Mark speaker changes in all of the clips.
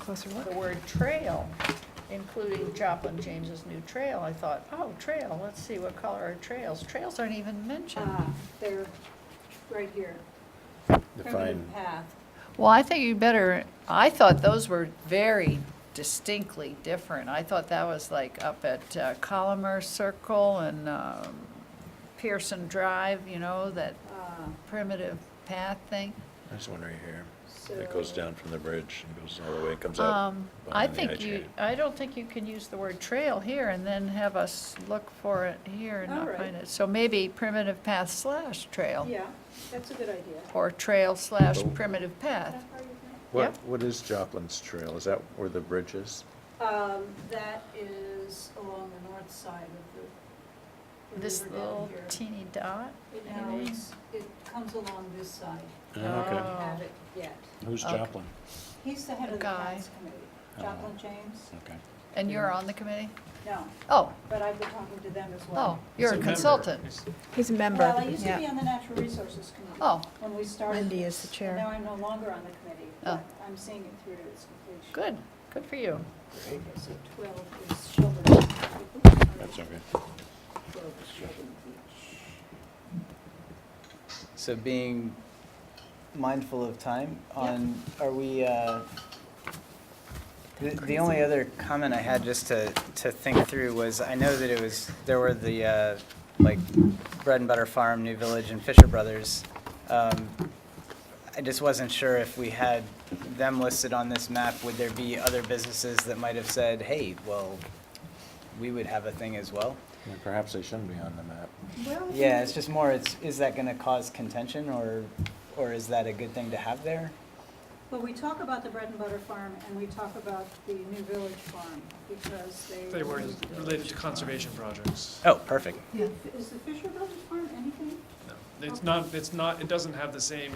Speaker 1: Closer look.
Speaker 2: the word trail, including Joplin James's new trail, I thought, oh, trail, let's see, what color are trails? Trails aren't even mentioned.
Speaker 3: Ah, They're right here.
Speaker 4: Define,
Speaker 3: Primitive path.
Speaker 2: Well, I think you better, I thought those were very distinctly different. I thought that was like up at uh, Colomer Circle and um, Pearson Drive, you know, that
Speaker 3: Ah,
Speaker 2: primitive path thing.
Speaker 4: there's one right here.
Speaker 3: So
Speaker 4: It goes down from the bridge and goes all the way, comes out.
Speaker 2: Um, I
Speaker 4: behind the
Speaker 2: think
Speaker 4: edge
Speaker 2: you,
Speaker 4: here.
Speaker 2: I don't think you can use the word trail here and then have us look for it here and
Speaker 3: All
Speaker 2: not
Speaker 3: right.
Speaker 2: find it. So maybe primitive path slash trail.
Speaker 3: Yeah, that's a good idea.
Speaker 2: Or trail slash
Speaker 4: Oh.
Speaker 2: primitive path.
Speaker 4: What,
Speaker 2: yep.
Speaker 4: what is Joplin's Trail? Is that where the bridge is?
Speaker 3: Um, That is along the north side of the the
Speaker 2: This
Speaker 3: river down
Speaker 2: little
Speaker 3: here.
Speaker 2: teeny dot,
Speaker 3: It now,
Speaker 2: maybe?
Speaker 3: it's- it comes along this side.
Speaker 2: okay.
Speaker 3: I
Speaker 2: Oh.
Speaker 3: have it yet.
Speaker 5: Who's
Speaker 2: Okay.
Speaker 5: Joplin?
Speaker 3: He's the head of the
Speaker 2: Guy.
Speaker 3: Paths Committee.
Speaker 4: Oh.
Speaker 3: Joplin James?
Speaker 4: Hmm.
Speaker 5: Okay.
Speaker 2: and you're on the committee?
Speaker 3: No,
Speaker 2: Oh,
Speaker 3: but I've been talking to them as
Speaker 2: oh,
Speaker 3: well.
Speaker 2: you're a consultant.
Speaker 1: He's a member.
Speaker 3: Well, I used to
Speaker 1: Yeah.
Speaker 3: be on the Natural Resources Committee.
Speaker 2: Oh.
Speaker 3: When we started.
Speaker 1: Wendy is the
Speaker 3: this,
Speaker 1: chair.
Speaker 3: and Now I'm no longer on the committee.
Speaker 2: Oh.
Speaker 3: but I'm seeing it through to its completion.
Speaker 2: Good, good for you.
Speaker 3: Okay, so 12 is Shelburne.
Speaker 5: That's okay.
Speaker 3: 12 is Shelburne Beach.
Speaker 6: So being mindful of time on, are we, uh, the, the only other comment I had just to, to think through was, I know that it was, there were the, uh, like, Bread and Butter Farm, New Village, and Fisher Brothers. Um, I just wasn't sure if we had them listed on this map, would there be other businesses that might have said, hey, well, we would have a thing as well?
Speaker 4: Yeah, Perhaps they shouldn't be on the map.
Speaker 3: Well, if
Speaker 6: Yeah,
Speaker 3: you-
Speaker 6: it's just more, it's, is that gonna cause contention or, or is that a good thing to have there?
Speaker 3: Well, we talk about the Bread and Butter Farm and we talk about the New Village Farm because they.
Speaker 7: They were
Speaker 3: moved the
Speaker 7: related to
Speaker 3: village.
Speaker 7: conservation projects.
Speaker 6: Oh, perfect.
Speaker 3: Yeah, Is the Fisher Brothers Farm anything?
Speaker 7: No, It's not, it's not, it doesn't have the same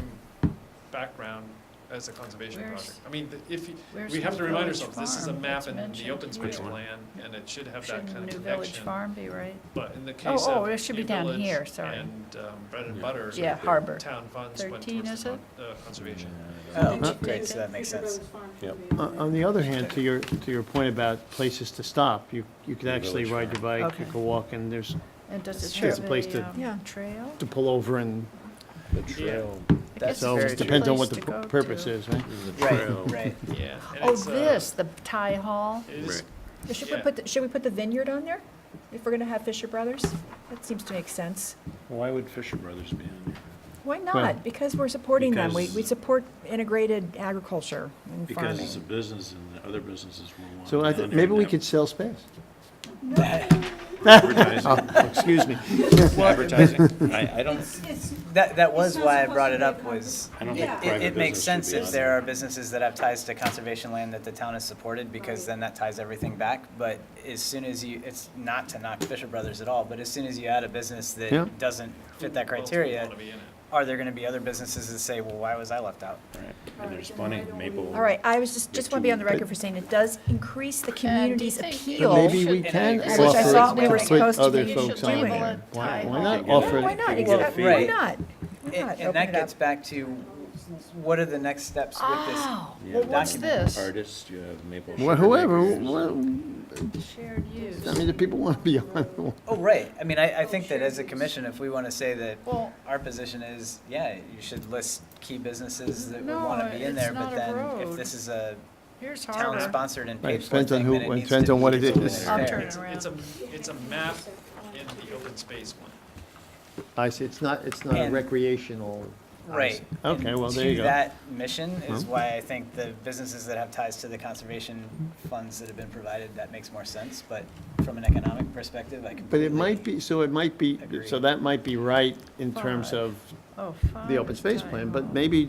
Speaker 7: background as a conservation
Speaker 2: Where's-
Speaker 7: project. I mean, the- if, you-
Speaker 2: where's
Speaker 7: we have
Speaker 2: New
Speaker 7: to remind
Speaker 2: Village
Speaker 7: ourselves, this is a
Speaker 2: Farm?
Speaker 7: map
Speaker 2: It's
Speaker 7: in the
Speaker 2: mentioned
Speaker 7: open space
Speaker 4: here.
Speaker 7: plan, and it should have that kind
Speaker 2: Shouldn't
Speaker 7: of
Speaker 2: New
Speaker 7: connection.
Speaker 2: Village Farm be right?
Speaker 7: But in the
Speaker 2: Oh,
Speaker 7: case
Speaker 2: oh,
Speaker 7: of
Speaker 2: it should be
Speaker 7: New
Speaker 2: down
Speaker 7: Village
Speaker 2: here, sorry.
Speaker 7: And um, Bread and
Speaker 4: Yeah.
Speaker 7: Butter,
Speaker 2: Yeah, Harbor.
Speaker 7: town funds went
Speaker 2: 13,
Speaker 7: towards
Speaker 2: is
Speaker 7: the
Speaker 2: it?
Speaker 7: con- uh, conservation.
Speaker 6: Oh,
Speaker 3: They- they
Speaker 6: great, so
Speaker 3: said
Speaker 6: that makes
Speaker 3: Fisher
Speaker 6: sense.
Speaker 3: Brothers Farm
Speaker 4: Yep.
Speaker 3: should be
Speaker 8: Uh, On on the other hand, to your, to your point about places to stop, you, you could actually
Speaker 4: Village
Speaker 8: ride your bike, you
Speaker 2: Okay.
Speaker 8: could walk, and there's,
Speaker 2: And does it
Speaker 8: Sure.
Speaker 2: have
Speaker 8: It's a place
Speaker 2: a
Speaker 8: to-
Speaker 1: Yeah.
Speaker 2: um, trail?
Speaker 8: to pull over and,
Speaker 4: The trail.
Speaker 2: I guess
Speaker 6: That's
Speaker 8: so
Speaker 2: it's
Speaker 6: very
Speaker 8: it
Speaker 2: just
Speaker 6: true.
Speaker 2: a
Speaker 8: depends on
Speaker 2: place
Speaker 8: what
Speaker 2: to
Speaker 8: the
Speaker 2: go
Speaker 8: purpose
Speaker 2: to.
Speaker 8: is, right?
Speaker 4: The trail.
Speaker 6: Right, right.
Speaker 7: Yeah. and
Speaker 2: Oh,
Speaker 7: it's, uh,
Speaker 2: this, the Thai Hall?
Speaker 7: It is,
Speaker 4: Right.
Speaker 1: Should we
Speaker 7: Yeah.
Speaker 1: put, the- should we put the vineyard on there? If we're gonna have Fisher Brothers? That seems to make sense.
Speaker 4: Why would Fisher Brothers be on here?
Speaker 1: Why
Speaker 8: Well,
Speaker 1: not? Because we're supporting them. We, we
Speaker 4: because-
Speaker 1: support integrated agriculture and
Speaker 4: Because
Speaker 1: farming.
Speaker 4: it's a business and the other businesses will want.
Speaker 8: So I,
Speaker 4: it
Speaker 8: thi-
Speaker 4: on there
Speaker 8: maybe we
Speaker 4: now.
Speaker 8: could sell space.
Speaker 6: Oh.
Speaker 4: Advertising,
Speaker 8: Excuse me.
Speaker 4: advertising. I, I don't,
Speaker 3: It's, it's,
Speaker 6: That, that
Speaker 3: It's
Speaker 6: was
Speaker 3: not
Speaker 6: why I
Speaker 3: supposed
Speaker 6: brought
Speaker 3: to
Speaker 6: it
Speaker 3: be a
Speaker 6: up was,
Speaker 3: conservation-
Speaker 4: I don't
Speaker 6: it,
Speaker 4: think
Speaker 3: Yeah.
Speaker 6: it-
Speaker 4: private
Speaker 6: it makes
Speaker 4: business
Speaker 6: sense
Speaker 4: should be
Speaker 6: if
Speaker 4: on
Speaker 6: there
Speaker 4: there.
Speaker 6: are businesses that have ties to conservation land that the town has supported, because
Speaker 3: Right.
Speaker 6: then that ties everything back. But as soon as you, it's not to knock Fisher Brothers at all, but as soon as you add a business
Speaker 8: Yeah.
Speaker 6: that doesn't fit that
Speaker 7: who else would
Speaker 6: criteria,
Speaker 7: wanna be in it?
Speaker 6: are there gonna be other businesses that say, well, why was I left out?
Speaker 4: Right. And there's plenty of maple.
Speaker 1: All right, I was just, just wanna be on the record
Speaker 8: But-
Speaker 1: for saying it does increase
Speaker 3: Uh,
Speaker 1: the community's
Speaker 2: think-
Speaker 1: appeal.
Speaker 8: But maybe
Speaker 2: Should-
Speaker 8: we can
Speaker 2: Which
Speaker 8: offer
Speaker 2: I thought we were
Speaker 8: it to
Speaker 1: supposed
Speaker 8: put
Speaker 1: to
Speaker 8: other
Speaker 1: be
Speaker 8: folks on
Speaker 1: doing.
Speaker 8: there. Why why
Speaker 2: Label
Speaker 8: not
Speaker 2: it
Speaker 8: offer
Speaker 1: Yeah,
Speaker 8: it?
Speaker 1: Why not?
Speaker 4: You get a
Speaker 1: Exactly.
Speaker 6: fee.
Speaker 1: Why not? Why
Speaker 6: And
Speaker 1: not?
Speaker 6: and
Speaker 1: Open
Speaker 6: that
Speaker 1: it up.
Speaker 6: gets back to, what are the next steps with this?
Speaker 2: Oh,
Speaker 4: Yeah,
Speaker 2: well, what's
Speaker 6: document
Speaker 2: this?
Speaker 4: Artists, you have maple.
Speaker 8: Well,
Speaker 4: sugar
Speaker 8: Whoever,
Speaker 4: makers.
Speaker 8: well,
Speaker 2: Shared use.
Speaker 8: I mean, the people want to be on.
Speaker 6: Oh, right. I mean, I, I think that as a commission, if we want to say that
Speaker 2: Well-
Speaker 6: our position is, yeah, you should list key businesses that would
Speaker 2: No,
Speaker 6: want to be in
Speaker 2: it's
Speaker 6: there,
Speaker 2: not
Speaker 6: but
Speaker 2: a
Speaker 6: then
Speaker 2: road.
Speaker 6: if this is a
Speaker 2: Here's Harbor.
Speaker 6: town-sponsored and
Speaker 8: Right,
Speaker 6: paid for
Speaker 8: depends on
Speaker 6: thing,
Speaker 8: who-
Speaker 6: then it
Speaker 8: it
Speaker 6: needs
Speaker 8: depends
Speaker 6: to
Speaker 8: on what
Speaker 6: be
Speaker 8: it
Speaker 6: something
Speaker 8: is.
Speaker 6: that's
Speaker 2: I'll
Speaker 6: fair.
Speaker 2: turn
Speaker 7: It's- It's a, it's a map in the open space one.
Speaker 8: I see, it's not, it's not a
Speaker 6: And-
Speaker 8: recreational.
Speaker 6: Right.
Speaker 8: Okay,
Speaker 6: And
Speaker 8: well, there you
Speaker 6: to
Speaker 8: go.
Speaker 6: that mission is why I think the businesses that have ties to the conservation funds that have been provided, that makes more sense. But from an economic perspective, I completely.
Speaker 8: But it might be, so it might be, so
Speaker 6: Agreed.
Speaker 8: that might be right in terms
Speaker 2: Five.
Speaker 8: of
Speaker 2: Oh,
Speaker 8: the open
Speaker 2: five
Speaker 8: space
Speaker 2: Thai
Speaker 8: plan,
Speaker 2: Hall.
Speaker 8: but maybe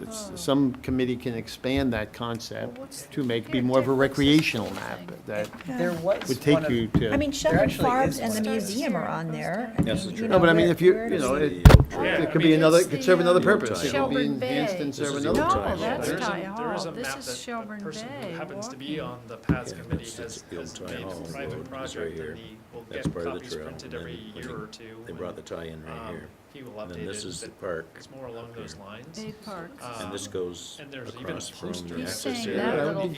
Speaker 8: it's-
Speaker 2: Oh.
Speaker 8: some committee can expand that
Speaker 2: Well, what's-
Speaker 8: concept to make be
Speaker 2: here,
Speaker 8: more of a
Speaker 2: Dick, what's this
Speaker 8: recreational map
Speaker 2: thing?
Speaker 8: that
Speaker 6: There was
Speaker 8: would
Speaker 6: one
Speaker 8: take
Speaker 6: of-
Speaker 8: you to.
Speaker 1: I mean, Shepherd
Speaker 6: actually
Speaker 1: Farms
Speaker 6: is
Speaker 1: and the
Speaker 6: one.
Speaker 1: museum are on there. I mean,
Speaker 4: That's the
Speaker 1: you
Speaker 4: truth.
Speaker 8: No, but I
Speaker 1: know,
Speaker 8: mean,
Speaker 1: where-
Speaker 8: if you,
Speaker 1: where
Speaker 8: you
Speaker 1: does
Speaker 8: know,
Speaker 1: it-
Speaker 8: it,
Speaker 7: Yeah,
Speaker 8: it
Speaker 7: I
Speaker 8: could
Speaker 7: mean,
Speaker 8: be another,
Speaker 2: it's
Speaker 8: it could serve
Speaker 2: the,
Speaker 8: another
Speaker 2: um,
Speaker 8: purpose. It could
Speaker 2: Shelburne
Speaker 8: be
Speaker 2: Bay.
Speaker 8: enhanced and
Speaker 4: This
Speaker 8: serve
Speaker 4: is the
Speaker 8: another
Speaker 4: old
Speaker 2: No,
Speaker 4: Thai
Speaker 8: purpose.
Speaker 4: hall.
Speaker 2: that's
Speaker 7: There's a-
Speaker 2: Thai
Speaker 7: There is
Speaker 2: Hall.
Speaker 7: a
Speaker 2: This
Speaker 7: map
Speaker 2: is
Speaker 7: that the
Speaker 2: Shelburne
Speaker 7: person who
Speaker 2: Bay.
Speaker 7: happens to be
Speaker 2: walking.
Speaker 7: on the paths
Speaker 4: Yeah,
Speaker 7: committee
Speaker 4: that's-
Speaker 7: has,
Speaker 4: that's the old
Speaker 7: has
Speaker 4: Town
Speaker 7: made
Speaker 4: Hall
Speaker 7: a
Speaker 4: Road is
Speaker 7: private
Speaker 4: right
Speaker 7: project
Speaker 4: here.
Speaker 7: and he will
Speaker 4: That's
Speaker 7: get
Speaker 4: part of the
Speaker 7: copies
Speaker 4: trail,
Speaker 7: printed
Speaker 4: and then
Speaker 7: every
Speaker 4: I
Speaker 7: year
Speaker 4: think
Speaker 7: or two.
Speaker 4: They
Speaker 7: and,
Speaker 4: brought the tie-in right
Speaker 7: um,
Speaker 4: here.
Speaker 7: He will
Speaker 4: And
Speaker 7: update
Speaker 4: then this is the
Speaker 7: it, but
Speaker 4: park.
Speaker 7: it's more along those lines.
Speaker 2: Bay Park.
Speaker 7: Uh,
Speaker 4: And this
Speaker 7: um,
Speaker 4: goes
Speaker 7: and there's even
Speaker 4: across from
Speaker 7: posters.
Speaker 4: the
Speaker 7: He's
Speaker 4: access
Speaker 2: saying that
Speaker 4: area.
Speaker 8: Yeah, that would
Speaker 2: little
Speaker 8: be